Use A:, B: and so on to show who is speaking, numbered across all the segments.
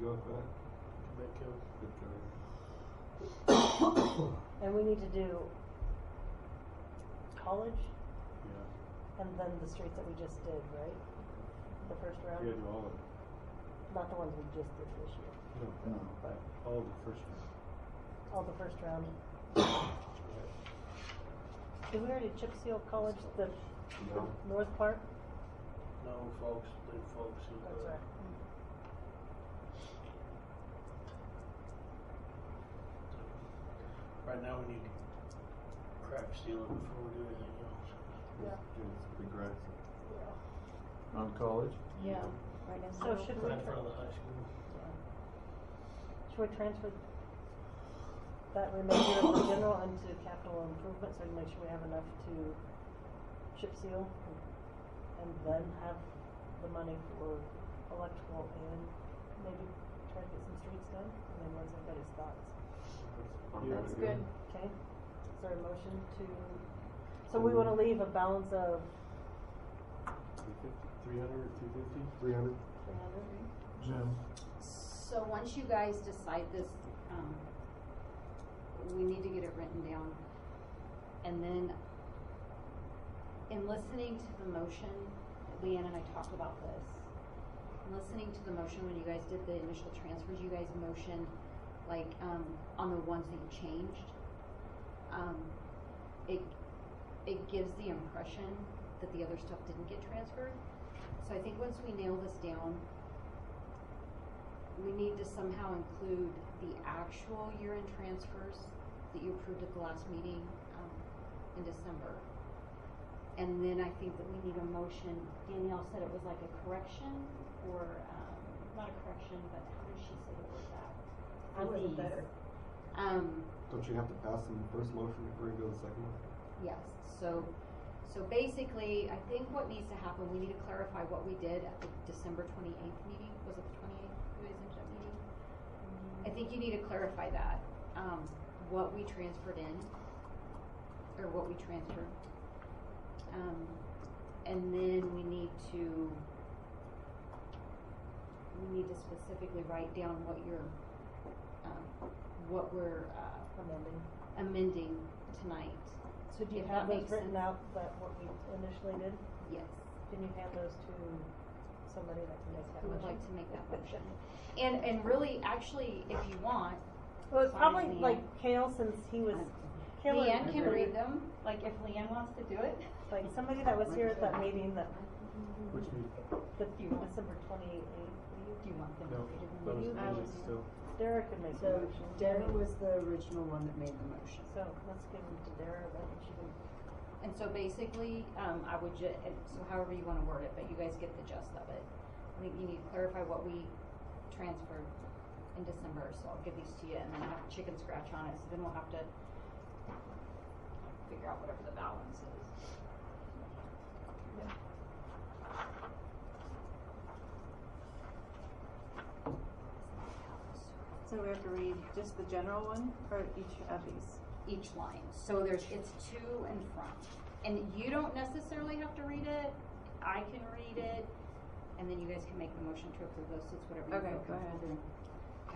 A: go with that?
B: That counts.
A: Good choice.
C: And we need to do college
B: Yeah,
C: and then the streets that we just did, right? The first round?
B: you gotta do all of it.
C: Not the ones we just did this year.
B: No, but all of the first one.
C: All the first round. Did we already chip seal college, the
A: No.
C: north part?
D: No, folks, leave folks uh, in
C: That's
D: the,
C: right. Mm.
D: right now we need to crack seal it before we do anything else.
C: Yeah.
A: Do this big rest.
E: On college?
F: Yeah, right now.
C: So should we,
D: Right in front of the high school.
C: should we transfer that remainder of the general into capital improvement so we make sure we have enough to chip seal? And then have the money for electrical and maybe try to get some streets done? And then what's everybody's thoughts?
F: That's good.
C: Okay, is there a motion to, so we wanna leave a balance of
B: Two fifty, three hundred or two fifty?
A: Three hundred?
C: three hundred?
E: Jim?
F: So once you guys decide this, um, we need to get it written down. And then, in listening to the motion, Leanne and I talked about this. In listening to the motion, when you guys did the initial transfers, you guys motioned, like, um, on the ones that you changed. Um, it, it gives the impression that the other stuff didn't get transferred. So I think once we nail this down, we need to somehow include the actual year-end transfers that you approved at the last meeting, um, in December. And then I think that we need a motion, Danielle said it was like a correction, or, um, not a correction, but how did she say it was that?
C: I wasn't
F: For these.
C: there.
F: Um,
A: Don't you have to pass in the first motion before you go to the second one?
F: Yes, so, so basically, I think what needs to happen, we need to clarify what we did at the December twenty-eighth meeting, was it the twenty-eighth, you guys ended up meeting? I think you need to clarify that, um, what we transferred in, or what we transferred. Um, and then we need to, we need to specifically write down what your, um, what we're, uh,
C: Amending.
F: amending tonight,
C: So do you
F: If
C: have
F: that
C: those
F: makes
C: written
F: sense.
C: out, that what we initially did?
F: yes.
C: Can you hand those to somebody that can make that
F: who
C: motion?
F: would like to make that motion. And, and really, actually, if you want,
C: Well, it's probably
F: Sorry, Leanne.
C: like Kale, since he was, Kale.
F: Uh, Leanne can read them, like if Leanne wants to do it.
C: Like somebody that was here at that meeting that,
B: Which means,
C: the December twenty-eighth,
F: Do you want them to
B: no,
F: read them?
B: that was
C: You-
B: me, still.
C: Dara could make the
G: So
C: motion.
G: Dara was the original one that made the motion.
C: So let's give them to Dara, then she can
F: And so basically, um, I would ju, and so however you wanna word it, but you guys get the gist of it. I think you need to clarify what we transferred in December, so I'll give these to you, and then I have a chicken scratch on it, so then we'll have to figure out whatever the balance is.
G: So we have to read just the general one or each of these?
F: each line. So there's, it's two in front. And you don't necessarily have to read it. I can read it. And then you guys can make the motion to approve those. It's whatever you
G: Okay,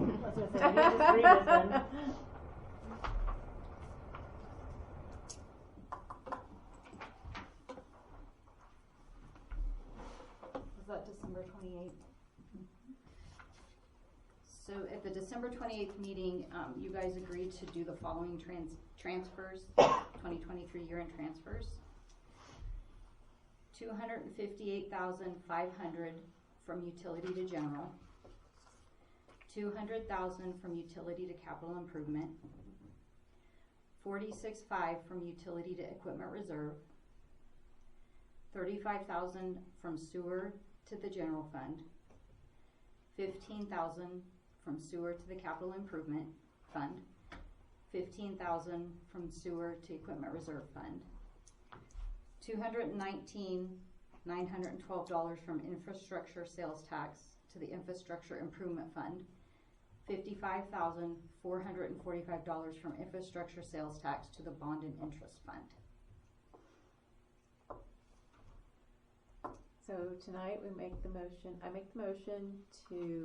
F: feel
G: go
C: I was gonna
G: ahead.
F: comfortable doing. Yeah, that back.
C: say, you just read it then.
F: Was that December twenty-eighth? So at the December twenty-eighth meeting, um, you guys agreed to do the following trans- transfers, twenty twenty-three year-end transfers. Two hundred and fifty-eight thousand five hundred from utility to general. Two hundred thousand from utility to capital improvement. Forty-six five from utility to equipment reserve thirty-five thousand from sewer to the general fund, fifteen thousand from sewer to the capital improvement fund, fifteen thousand from sewer to equipment reserve fund, two hundred and nineteen, nine hundred and twelve dollars from infrastructure sales tax to the infrastructure improvement fund, fifty-five thousand, four hundred and forty-five dollars from infrastructure sales tax to the bond and interest fund.
G: So tonight we make the motion, I make the motion to